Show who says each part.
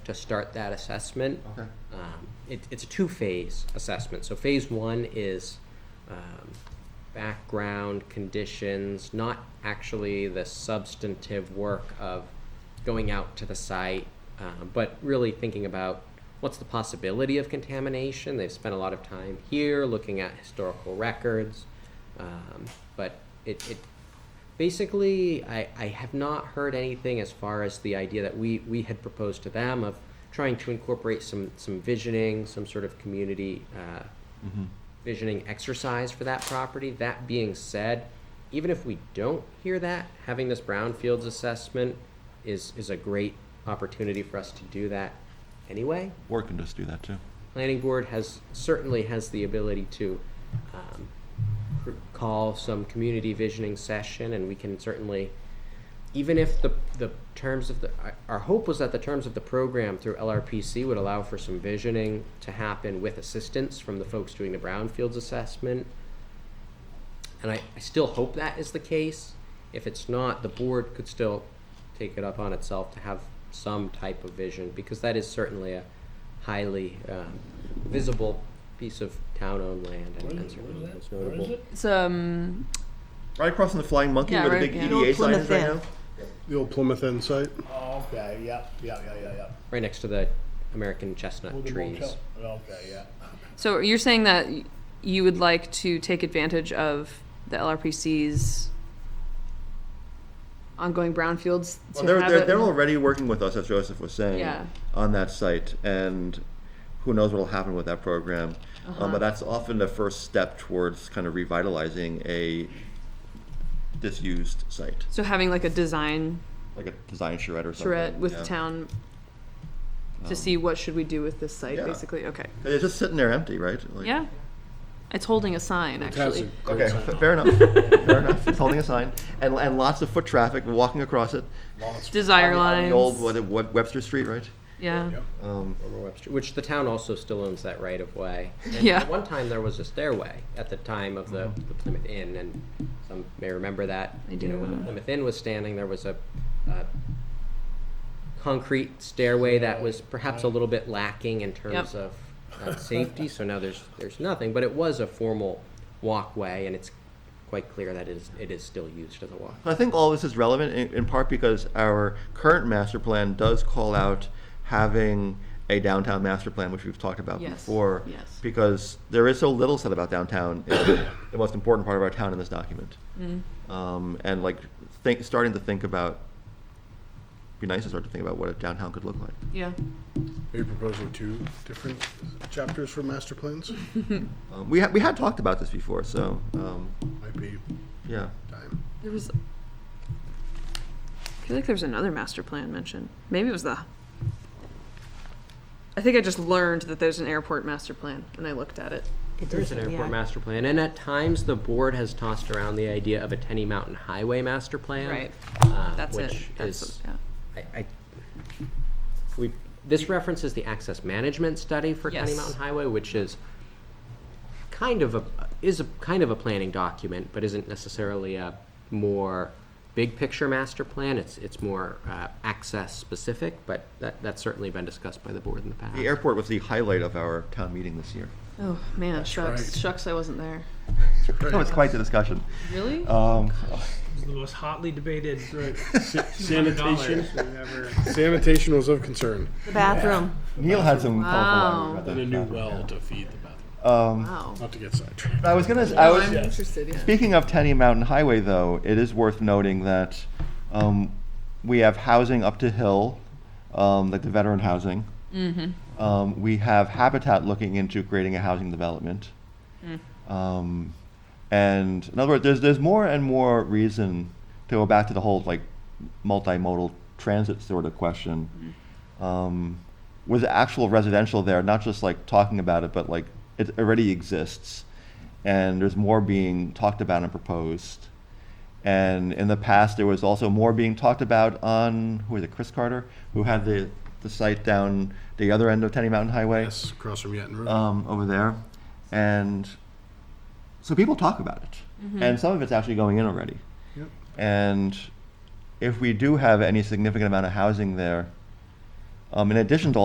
Speaker 1: to start that assessment.
Speaker 2: Okay.
Speaker 1: Um, it, it's a two-phase assessment. So phase one is um, background conditions, not actually the substantive work of going out to the site, um, but really thinking about what's the possibility of contamination. They've spent a lot of time here looking at historical records, um, but it, it basically I, I have not heard anything as far as the idea that we, we had proposed to them of trying to incorporate some, some visioning, some sort of community uh, visioning exercise for that property. That being said, even if we don't hear that, having this brownfields assessment is, is a great opportunity for us to do that anyway.
Speaker 2: Or can just do that too.
Speaker 1: Planning board has, certainly has the ability to um, r- call some community visioning session and we can certainly, even if the, the terms of the, our- our hope was that the terms of the program through LRPC would allow for some visioning to happen with assistance from the folks doing the brownfields assessment. And I, I still hope that is the case. If it's not, the board could still take it up on itself to have some type of vision, because that is certainly a highly um, visible piece of town-owned land and- and certainly is notable.
Speaker 3: It's um
Speaker 2: Right across from the Flying Monkey
Speaker 3: Yeah,
Speaker 2: where the
Speaker 3: right,
Speaker 2: big
Speaker 3: yeah.
Speaker 2: EDA sign is
Speaker 4: Plymouth
Speaker 2: right
Speaker 4: Inn.
Speaker 2: now.
Speaker 5: The old Plymouth End site?
Speaker 6: Oh, okay, yeah, yeah, yeah, yeah, yeah.
Speaker 1: Right next to the American chestnut
Speaker 6: With the
Speaker 1: trees.
Speaker 6: motel. Okay, yeah.
Speaker 3: so you're saying that y- you would like to take advantage of the LRPC's ongoing brownfields
Speaker 2: Well,
Speaker 3: to
Speaker 2: they're,
Speaker 3: have
Speaker 2: they're,
Speaker 3: it-
Speaker 2: they're already working with us, as Joseph was saying,
Speaker 3: Yeah.
Speaker 2: on that site, and who knows what will happen with that program.
Speaker 3: Uh-huh.
Speaker 2: Um, but that's often the first step towards kind of revitalizing a disused site,
Speaker 3: so having like a design
Speaker 2: like a design charrette or something.
Speaker 3: charrette with
Speaker 2: yeah.
Speaker 3: the town to
Speaker 2: Um,
Speaker 3: see what should we do with this site
Speaker 2: yeah.
Speaker 3: basically okay
Speaker 2: 'Cause It's just sitting there empty, right? Like-
Speaker 3: yeah it's holding a sign actually
Speaker 5: Fantastic.
Speaker 2: Okay, fa- fair enough. fair enough. It's holding a sign, and, and lots of foot traffic walking across it.
Speaker 3: desire
Speaker 2: On the- on
Speaker 3: lines
Speaker 2: the old what, Web- Webster Street, right?
Speaker 3: yeah
Speaker 2: Um,
Speaker 1: Wilmer Webster, which the town also still owns that right of way. And
Speaker 3: Yeah.
Speaker 1: At one time, there was a stairway at the time of the, the Plymouth Inn, and some may remember that.
Speaker 3: I
Speaker 1: You know,
Speaker 3: do.
Speaker 1: when the Plymouth Inn was standing, there was a, a concrete stairway that was perhaps a little bit lacking in terms of uh, safety. So now there's there's nothing, but it was a formal walkway, and it's quite clear that it is it is still used as a walk.
Speaker 2: I think all this is relevant in, in part because our current master plan does call out having a downtown master plan, which we've talked about
Speaker 3: Yes,
Speaker 2: before.
Speaker 3: yes.
Speaker 2: Because there is so little said about downtown, in the most important part of our town in this document.
Speaker 3: Mm-hmm.
Speaker 2: Um, and like think, starting to think about, be nice to start to think about what a downtown could look like.
Speaker 3: yeah
Speaker 5: Are you proposing two different chapters for master plans?
Speaker 2: Um, we, ha- we had talked about this before, so um,
Speaker 5: Might be
Speaker 2: yeah.
Speaker 5: time.
Speaker 3: there was I feel like there was another master plan mentioned maybe it was the I think I just learned that there's an airport master plan and I looked at it
Speaker 1: There's an airport master plan, and at times the board has tossed around the idea of a Tenny Mountain Highway master plan.
Speaker 3: Right.
Speaker 1: uh,
Speaker 3: that's
Speaker 1: which
Speaker 3: it that's
Speaker 1: is-
Speaker 3: yeah.
Speaker 1: I, I, we, this references the access management study for Tenny
Speaker 3: Yes.
Speaker 1: Mountain Highway, which is kind of a, is a, kind of a planning document, but isn't necessarily a more big picture master plan. It's, it's more, uh, access specific, but that, that's certainly been discussed by the board in the past.
Speaker 2: The airport was the highlight of our town meeting this year.
Speaker 3: Oh man, shucks,
Speaker 5: right.
Speaker 3: shucks, I wasn't there.
Speaker 2: That was quite the discussion.
Speaker 3: Really?
Speaker 2: Um,
Speaker 7: It's the most hotly debated
Speaker 5: Sanitation,
Speaker 7: dollars we've ever.
Speaker 5: sanitation was of concern.
Speaker 4: The bathroom.
Speaker 2: Neil had some
Speaker 3: Wow.
Speaker 2: colorful
Speaker 6: And a
Speaker 2: language
Speaker 6: new
Speaker 2: about that.
Speaker 6: well to feed the bathroom.
Speaker 2: Um,
Speaker 3: wow.
Speaker 5: Not to get sidetracked.
Speaker 2: I was gonna. I was
Speaker 3: I'm interested. Yeah.
Speaker 2: speaking of Tenny Mountain Highway, though. It is worth noting that um, we have housing up to hill, um, like the veteran housing. Mm-hmm. Um, we have Habitat looking into creating a housing development. Um, and in other words, there's there's more and more reason to go back to the whole like multimodal transit sort of question. Um, with actual residential there, not just like talking about it, but like it already exists, and there's more being talked about and proposed. And in the past, there was also more being talked about on who was it, Chris Carter, who had the the site down the other end of Tenny Mountain Highway
Speaker 5: Yes, across from Yetton Road.
Speaker 2: um, over there, and so people talk about it, and some of it's actually going in already.
Speaker 5: Yep.
Speaker 2: And if we do have any significant amount of housing there, um, in addition to